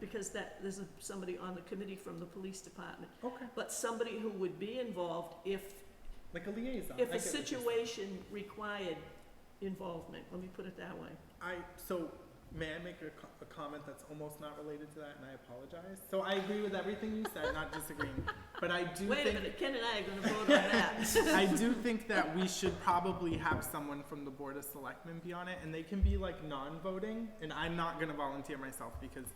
because that, there's a- somebody on the committee from the police department, Okay, but somebody who would be involved if, like a liaison. Uh, I if a get what you're saying. situation required involvement, let me put it that way. I, so, may I make a, co- a comment that's almost not related to that, and I apologize? So I agree with everything you said, not disagreeing, but I do Wait a think, minute, Ken and I are gonna vote on that. I do think that we should probably have someone from the Board of Selectmen be on it, and they can be like non-voting, and I'm not gonna volunteer myself because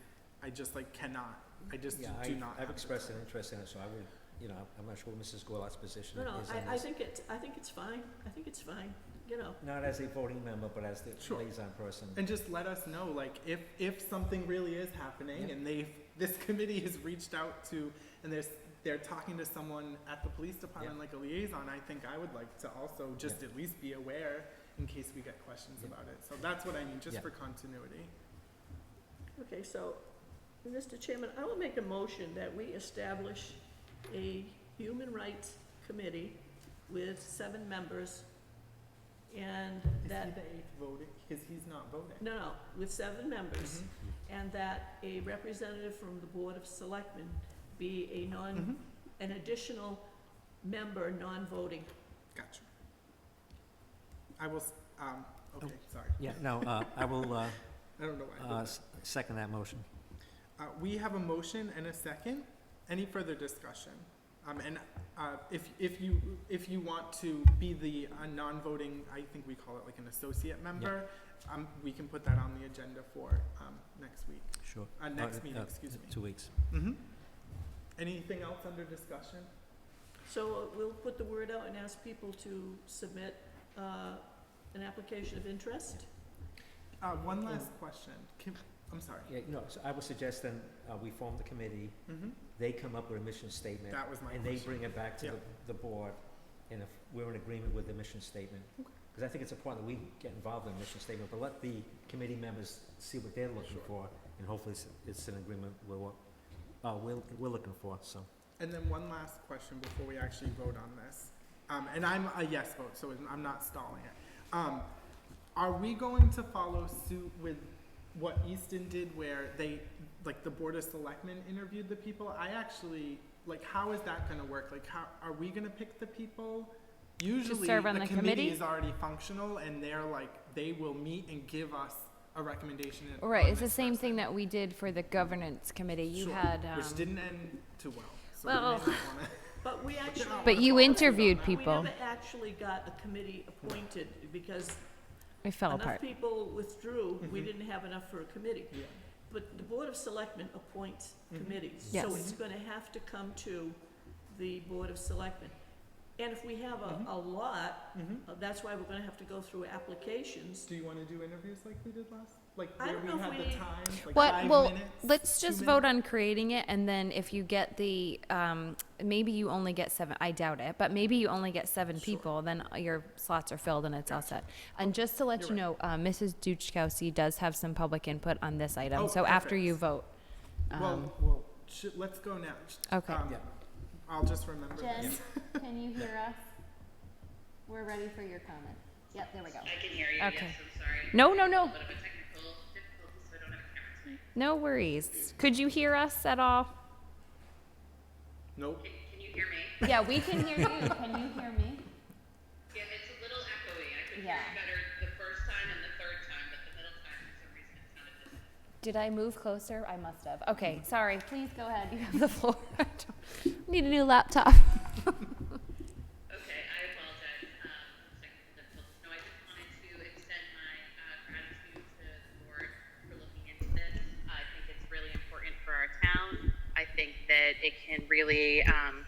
I just like cannot, I just do Yeah, not. have I, I've the expressed an time. interest in it, so I would, you know, I'm not sure what Mrs. Goulart's position No, is no, on this. I, I think it's, I think it's fine, I think it's fine, you know. Not as a voting member, but as the Sure. liaison person. And just let us know, like, if, if something really is happening Yeah. and they've, this committee has reached out to, and there's, they're talking to someone at the police department, like a liaison, I think I would like to also just Yeah. at least be aware in case we get questions Yeah. about it. So that's what I mean, just Yeah. for continuity. Okay, so, Mr. Chairman, I will make a motion that we establish a human rights committee with seven members and Is he the that, eighth voting? Because he's not voting. no, no, with seven members, Mhm. and that a representative from the Board of Selectmen be a non, Mhm. an additional member, non-voting. Gotcha. I will, s- um, okay, sorry. Yeah, no, uh, I will, uh, I don't know why. I did uh, that. s- second that motion. Uh, we have a motion and a second. Any further discussion? Um, and, uh, if, if you, if you want to be the, uh, non-voting, I think we call it like an associate member, um, we can put that on the agenda for, um, next week, Sure. uh, Uh, next meeting, uh, excuse me. Two weeks. Mhm. Anything else under discussion? So uh, we'll put the word out and ask people to submit, uh, an application of interest. Uh, one last question. Can, I'm sorry. Yeah, no, so I would suggest then, uh, we form the committee, hmm they come up with a mission statement, That was my and they question. bring it back to Yeah. the, the board, and if we're in agreement with the mission statement. Okay. Because I think it's important that we get involved in the mission statement, but let the committee members see what they're looking Sure. for, and hopefully it's, it's in agreement with what, uh, we're, we're looking for, so. And then one last question before we actually vote on this. Um, and I'm a yes vote, so I'm not stalling it. Um, are we going to follow suit with what Easton did where they, like the Board of Selectmen interviewed the people? I actually, like, how is that gonna work? Like, how, are we gonna pick the people? Usually, serve on the the committee committee? is already functional and they're like, they will meet and give us a recommendation. All Right, on it's the this same person. thing that we did for the governance committee. You Sure, had, um, Which didn't end too well, so we may Well- not wanna. But we actually. But you interviewed people. We never actually got a committee appointed because it fell enough Oh, apart. people withdrew, we Mhm. didn't have enough for a committee. Yeah. But the Board of Selectmen appoints Mhm. committees, so Yes. it's gonna have to come to the Board of Selectmen. And if we have a, Mhm. a lot, Mhm. uh, that's why we're gonna have to go through applications. Do you want to do interviews like we did last? Like I where don't we know if had the we- time, like What- five well, minutes? Let's two just vote on creating it, and then if you get the, um, maybe you only get seven, I doubt it, but maybe you only get seven Sure. people, then your slots are filled and it's all Gotcha. set. And just to let You're you know, uh, Mrs. Duchkowski does have some public input on this Oh, item, so after perfect. you vote. um, Well, well, sh- let's go now. Sh- Okay. um, Yeah. I'll just remember. Jen, this. can you hear us? We're ready for your comment. Yep, there we go. I can hear you. Okay. Yes, I'm sorry. No, no, A no, little bit of a technical difficulty, so I don't have a camera tonight. no worries. Could you hear us at all? Nope. Can, can you hear me? Yeah, we can hear you. Can you hear me? Yeah, it's a little echoey. I could hear Yeah. you better the first time and the third time, but the middle time, for some reason, it sounded distant. Did I move closer? I must have. Okay, sorry. Please go ahead. You have the floor. I don't- Need a new laptop. Okay, I apologize. Um, technical difficulties. No, I just wanted to extend my uh, gratitude to the board for looking into this. I think it's really important for our town. I think that it can really um,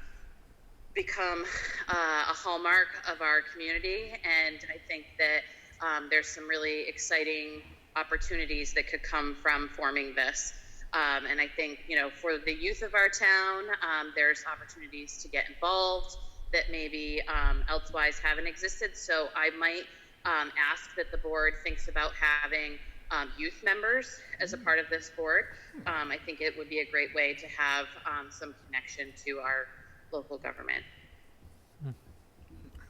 become uh, a hallmark of our community, and I think that um, there's some really exciting opportunities that could come from forming this. Um, and I think, you know, for the youth of our town, um, there's opportunities to get involved that maybe um, elsewise haven't existed. So I might um, ask that the board thinks about having um, youth members as a part of this board. Um, I think it would be a great way to have um, some connection to our local government. I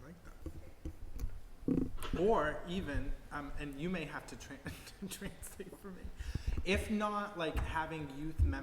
like that. Or even, um, and you may have to tran- translate for me. If not, like having youth members.